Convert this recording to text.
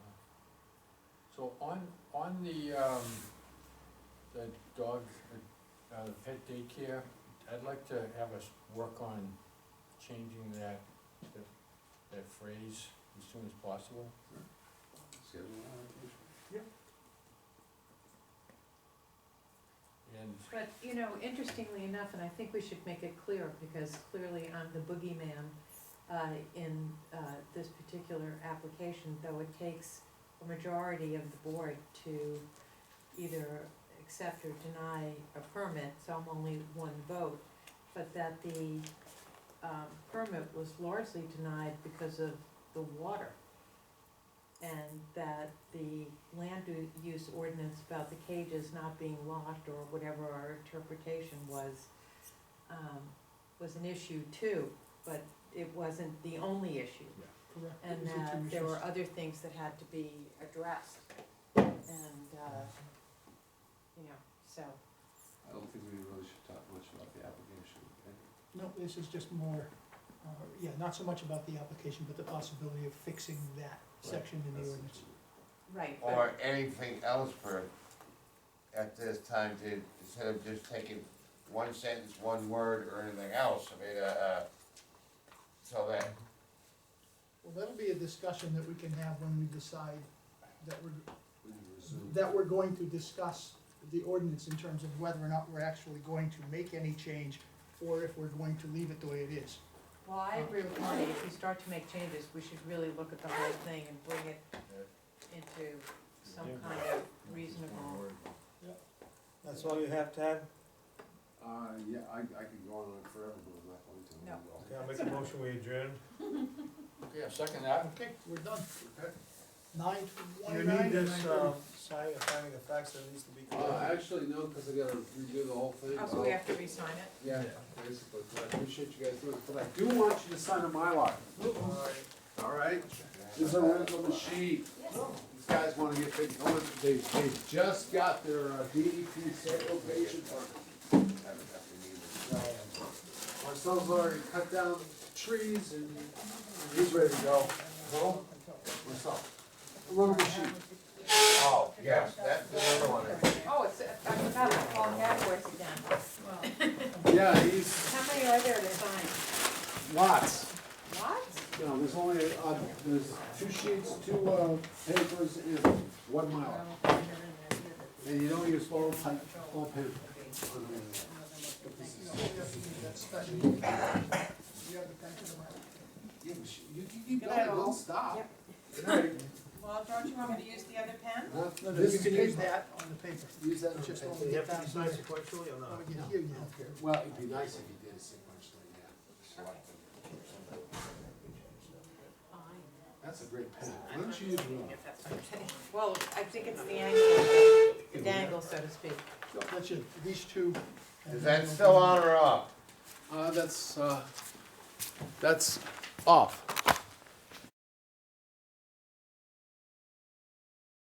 So on, on the, um, the dog, uh, the pet daycare, I'd like to have us work on changing that, that, that phrase as soon as possible. Schedule And, But, you know, interestingly enough, and I think we should make it clear, because clearly I'm the boogeyman uh, in uh, this particular application, though it takes a majority of the board to either accept or deny a permit, so I'm only one vote, but that the um, permit was largely denied because of the water. And that the land u- use ordinance about the cages not being locked or whatever our interpretation was, um, was an issue too, but it wasn't the only issue. Correct. Is And it that there commissions? were other things that had to be addressed. And, uh, you know, so, I don't think we really should talk much about the application. okay? No, this is just more, uh, yeah, not so much about the application, but the possibility of fixing that section in the That's- ordinance. right, but- Or anything else for, at this time, to, instead of just taking one sentence, one word, or anything else, I mean, uh, uh, so that, Well, that'll be a discussion that we can have when we decide that we're, We can resume. that we're going to discuss the ordinance in terms of whether or not we're actually going to make any change or if we're going to leave it the way it is. well, I agree with Marty, if we start to make changes, we should really look at the whole thing and bring it into some Yeah. kind of reasonable, That's all you have, Tad? Uh, yeah, I, I could go on forever, but I'm not going to. No. Okay, I'll make a motion, we adjourn. yeah, second that. Okay, we're done. Nine You twenty-nine. need this, um, sign, finding of facts that needs to be Uh, corrected. actually, no, because I gotta redo the whole thing. oh, so we have to re-sign it? Yeah, basically, but I appreciate you guys doing it, but I do want you to sign a Mylar, Alright. all right? These are written on the sheet. These guys wanna get big, they, they just got their uh, DEP certification permit. My son's already cut down trees and he's ready to go. Well, myself. Look at the sheet. oh, yes, that's the other one. Oh, it's, I forgot to call Hadworth again. Yeah, he's How many are there to sign? lots. What? You know, there's only, uh, there's two sheets, two, uh, papers and one Mylar. And you don't use all type, all paper. Yeah, but you- you can keep Good night, all. stop. Yep. Well, don't you want me to use the other pen? Huh? No, no, you This can use is- that on the paper. Use that. Just on don't the You paper. have to decide sequentially or That not? would get you, you know. Well, it'd be nice if you did it sequentially, yeah. That's a great pen. Why don't you use one? Well, I think it's the angle, the dangle, so to speak. That's it, these two. and Is then that we'll still do- on or off? Uh, that's, uh, that's off.